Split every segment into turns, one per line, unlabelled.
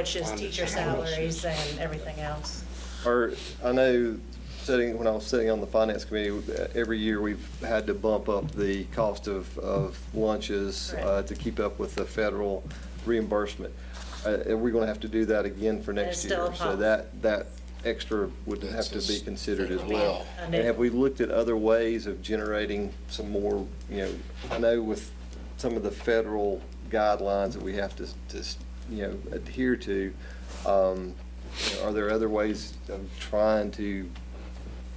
which is teacher salaries and everything else.
Or, I know, sitting, when I was sitting on the finance committee, every year we've had to bump up the cost of, of lunches
Correct.
uh, to keep up with the federal reimbursement. Uh, And we're gonna have to do that again for
it's
next
still a
year. So
pop.
that, that extra would have to be considered as well.
I
And
know.
have we looked at other ways of generating some more, you know, I know with some of the federal guidelines that we have to, to, you know, adhere to, um, you know, are there other ways of trying to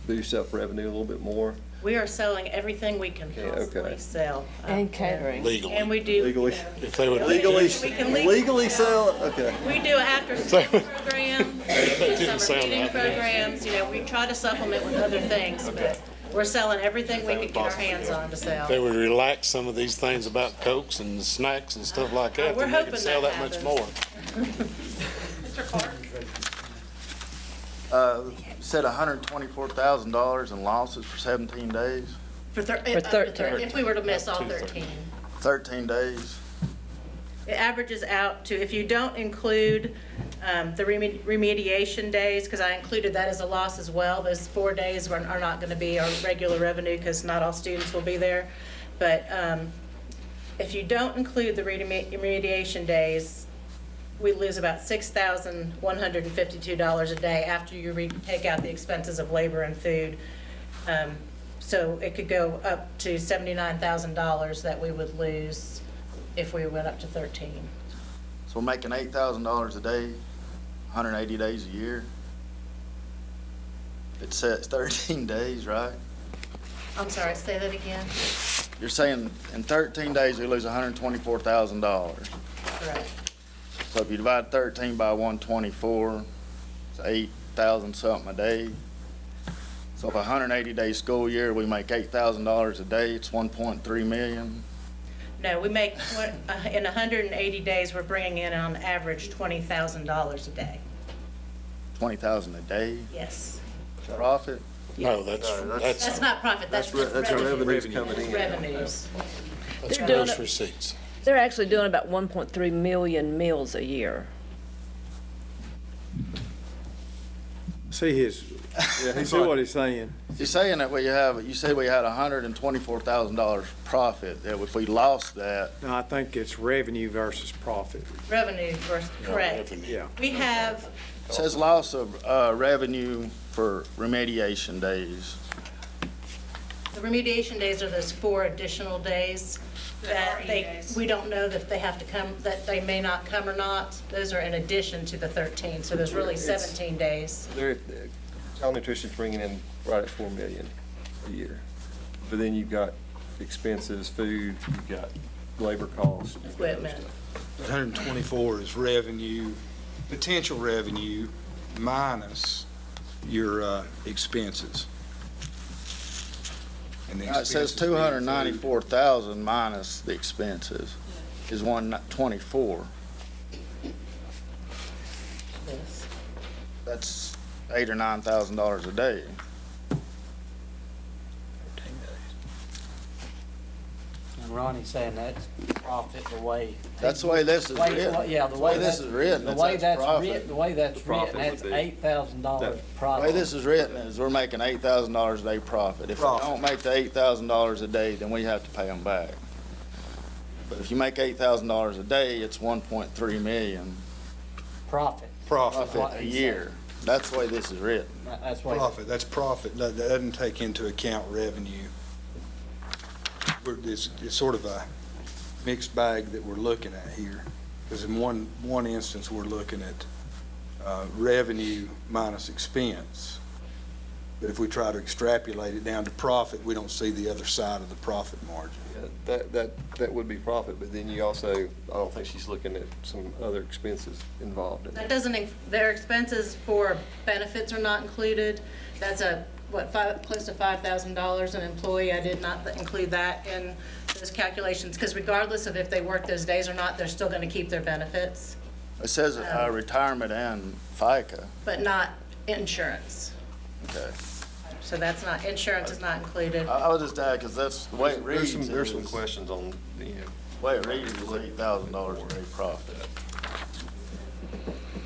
boost up revenue a little bit more?
We are selling everything we can
Okay, okay.
possibly sell. out
And
there.
catering.
Legally.
And we do.
Legally.
If they would
Legally,
We can legally
legally sell,
sell.
okay.
We do after school program, we do
didn't
summer
sound
reading
right.
programs, you know, we try to supplement with other things, but we're selling everything we can get our hands on to sell.
they would relax some of these things about cokes and snacks and stuff like that,
Oh, We're
then they
hoping
could sell
that
that much
happens.
more.
Mr. Clark?
Uh, Said $124,000 in losses for 17 days,
For thir-
For
uh, up to
13.
If we were to miss all 13.
13 days.
It averages out to, if you don't include um, the reme- remediation days, because I included that as a loss as well, those four days were- are not going to be our regular revenue because not all students will be there. But um, if you don't include the remedi- remediation days, we lose about $6,152 a day after you re- take out the expenses of labor and food. Um, So it could go up to $79,000 that we would lose if we went up to 13.
So we're making $8,000 a day, 180 days a year. It says 13 days, right?
I'm sorry, say that again?
You're saying in 13 days, we lose $124,000.
Correct.
So if you divide 13 by 124, it's 8,000 something a day. So if a 180-day school year, we make $8,000 a day, it's 1.3 million.
No, we make, what- uh, in 180 days, we're bringing in on average $20,000 a day.
twenty thousand a day
Yes.
profit.
No, that's,
That's
that's,
not profit, that's
That's, re-
just
that's our
revenue.
revenues coming
That's
in.
revenues.
that's
They're doing
gross
it-
receipts.
They're actually doing about 1.3 million meals a year.
See his, see what he's saying.
You're saying that we have, you say we had hundred and twenty-four thousand dollars profit, that if we lost that,
No, I think it's revenue versus profit.
Revenue versus, correct.
Revenue.
Yeah.
We have,
it says loss of, uh, revenue for remediation days.
the remediation days are those four additional days that they, we don't know that they have to come, that they may not come or not. Those are in addition to the 13, so there's really 17 days.
They're, uh, child nutrition's bringing in right at four million a year. But then you've got expenses, food, you've got labor costs. you've got other
Equipment.
stuff.
124 is revenue, potential revenue minus your uh, expenses. And the
Uh, It says
expenses being
two hundred and ninety-four thousand minus the expenses is one twenty-four.
Yes.
That's eight or nine thousand dollars a day.
And Ronnie's saying that's profit the way.
That's the way this is
Way-
written.
Yeah, the way
this
that's.
is written,
The
it's
way
that's
that's
profit.
written, the way that's written, that's eight thousand dollars
The way
profit.
this is written is we're making eight thousand dollars a day profit. If we
Profit.
don't make the eight thousand dollars a day, then we have to pay them back. But if you make eight thousand dollars a day, it's one point three million
Profit,
Profit,
profit a year. That's the way this is written.
That- that's what.
profit, that's profit, that that doesn't take into account revenue. We're- It's, it's sort of a mixed bag that we're looking at here, because in one, one instance, we're looking at uh, revenue minus expense. But if we try to extrapolate it down to profit, we don't see the other side of the profit margin.
Yeah, That, that, that would be profit, but then you also, I don't think she's looking at some other expenses involved in it.
That doesn't, inc- their expenses for benefits are not included. That's a, what, five, close to $5,000 an employee. I did not include that in those calculations, because regardless of if they work those days or not, they're still going to keep their benefits,
It says uh, retirement and FICA.
but not insurance.
Okay.
So that's not, insurance is not included.
I, I was just asking, because that's the way it
There's
reads.
some, there's some
is-
questions on, you know,
Way it reads is eight thousand dollars a day profit.